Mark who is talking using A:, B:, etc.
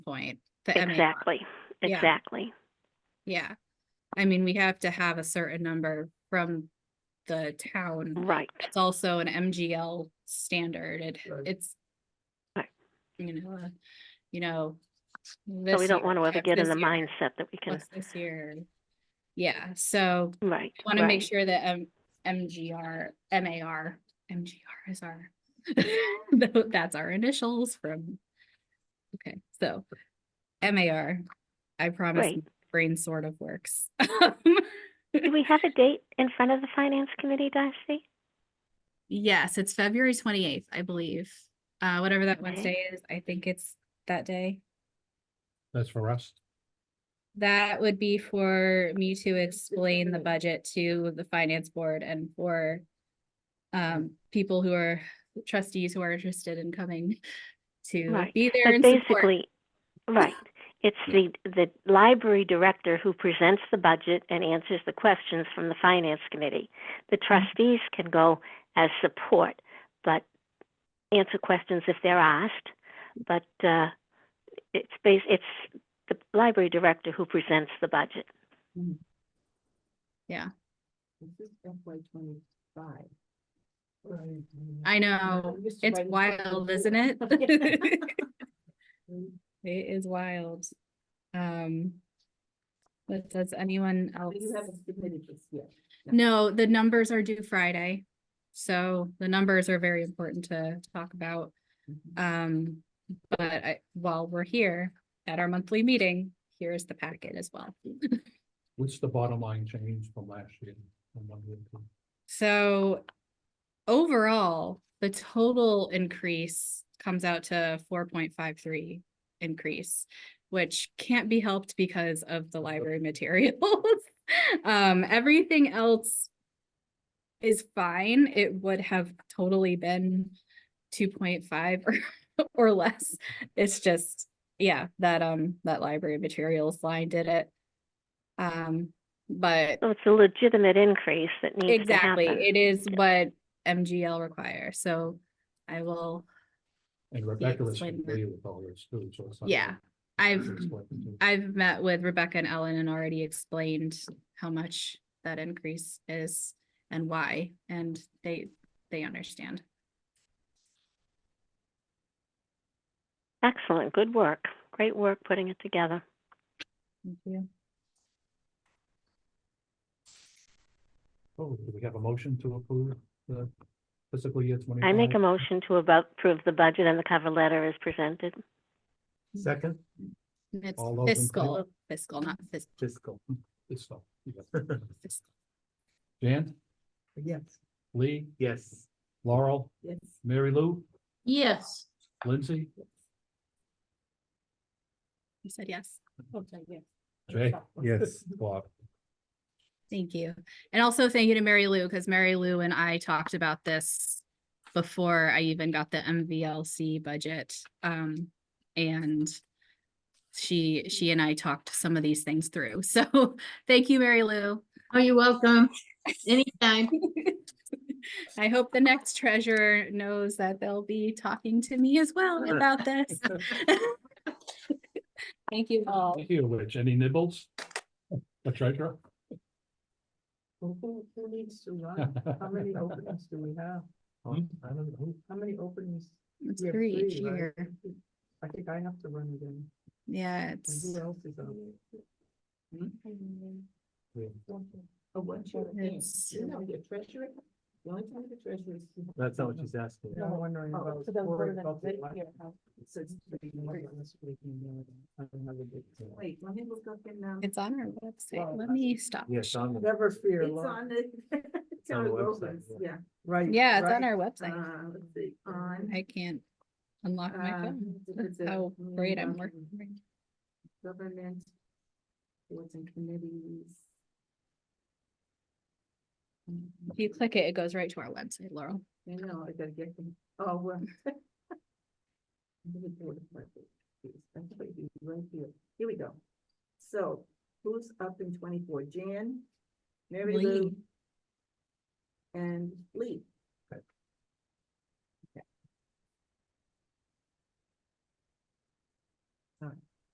A: point. the MAR.
B: Exactly,
A: Yeah.
B: exactly.
A: Yeah. I mean, we have to have a certain number from the town.
B: Right,
A: It's also an MGL standard. It,
C: Right.
A: it's.
B: Right.
A: You know, uh, you know.
B: so we
A: this
B: don't
A: year,
B: want to ever
A: half
B: get in
A: this
B: the
A: year,
B: mindset that we can,
A: what's This year. Yeah, so
B: right.
A: want to make
B: right.
A: sure that um, MGR, MAR, MGR is our, tho- that's our initials from, okay, so MAR, I promise
B: Great.
A: brain sort of works.
B: Do we have a date in front of the finance committee, Darcy?
A: Yes, it's February twenty-eighth, I believe. Uh, whatever that
B: Okay.
A: Wednesday is, I think it's that day.
C: That's for us.
A: That would be for me to explain the budget to the finance board and for um, people who are trustees who are interested in coming to
B: Right,
A: be there
B: But
A: and support.
B: basically, right, it's the, the library director who presents the budget and answers the questions from the finance committee. The
A: Mm-hmm.
B: trustees can go as support, but answer questions if they're asked. But, uh, it's bas, it's the library director who presents the budget.
D: This is FY twenty-five.
A: I know,
D: I'm just
A: it's
D: writing something
A: wild, isn't
D: down.
A: it? It is wild. Um, but does anyone else?
D: But You haven't submitted this yet.
A: No, the numbers are due Friday. So the numbers are very important to talk about. Um, but I, while we're here at our monthly meeting, here's the packet as well.
C: What's the bottom line change from last year? from one year to-
A: So overall, the total increase comes out to four point five three increase, which can't be helped because of the library materials. Um, everything else is fine. It would have totally been two point five or or less. It's just, yeah, that um, that library materials line did it. Um, but
B: So it's a legitimate increase that needs to
A: Exactly,
B: happen.
A: it is what MGL requires, so I will,
C: And Rebecca is
A: explain that.
C: familiar with all this too, so it's. not-
A: yeah. I've,
C: Explain it to-
A: I've met with Rebecca and Ellen and already explained how much that increase is and why, and they, they understand.
B: Excellent, good work. Great work putting it together.
A: Thank you.
C: Oh, do we have a motion to approve the fiscal year twenty?
B: I make a motion to about approve the budget and the cover letter is presented.
C: Second.
A: It's
C: All those in favor?
A: fiscal, fiscal, not fis-
C: Fiscal. Fiscal.
A: fiscal.
C: Jan,
D: Yes.
C: Lee,
E: Yes.
C: Laurel,
D: Yes.
C: Mary Lou,
E: Yes.
C: Lindsay,
A: You said yes,
D: Okay, yes.
C: Jay. Bob.
A: thank you. And also thank you to Mary Lou, because Mary Lou and I talked about this before I even got the MVLC budget. Um, and she, she and I talked some of these things through. So thank you, Mary Lou.
E: Oh, you're welcome. Anytime.
A: I hope the next treasurer knows that they'll be talking to me as well about this. Thank you all.
C: Thank you, Rich. Any nibbles? The treasurer?
D: Who, who who needs to run? How many openings do we have?
C: Hmm? I don't know.
D: How many openings?
A: It's
D: We have
A: three each
D: right?
A: year.
D: I think I have to run again.
A: Yeah,
D: And
A: it's,
D: who else is on? Hmm? A one chair.
A: It's-
D: You know, your treasurer, the only time the treasurer is.
E: That's not what she's asking.
D: No, I'm wondering
F: Oh,
D: about.
F: so those
D: forward
F: were the
D: budget
F: big
D: line.
F: year, huh?
D: Since we
F: Great.
D: went on this week, you know, I don't have a big-
F: Wait, let me look up and, um,
A: it's on our website.
D: Well,
A: Let me stop.
E: Yes, on the,
D: Never fear,
F: it's
D: Laura.
F: on the. it's
E: on
F: on
E: the
F: the
E: website,
F: Groveland's,
E: yeah.
F: Yeah,
D: Right.
A: Yeah, it's on
D: right. um,
A: our website.
F: uh, let's see, on.
A: I can't unlock my
F: uh,
A: phone.
F: it's-
A: That's
F: it's a
A: how great I'm
F: government-
A: working. right now.
F: Government. Boards and committees.
A: If you click it, it goes right to our website, Laurel.
F: I know, I gotta get them, oh, well. Individual budget, it's actually Right here, here we go. So, who's up in twenty-four, Jan? Mary Lou?
A: Lee.
F: And Lee,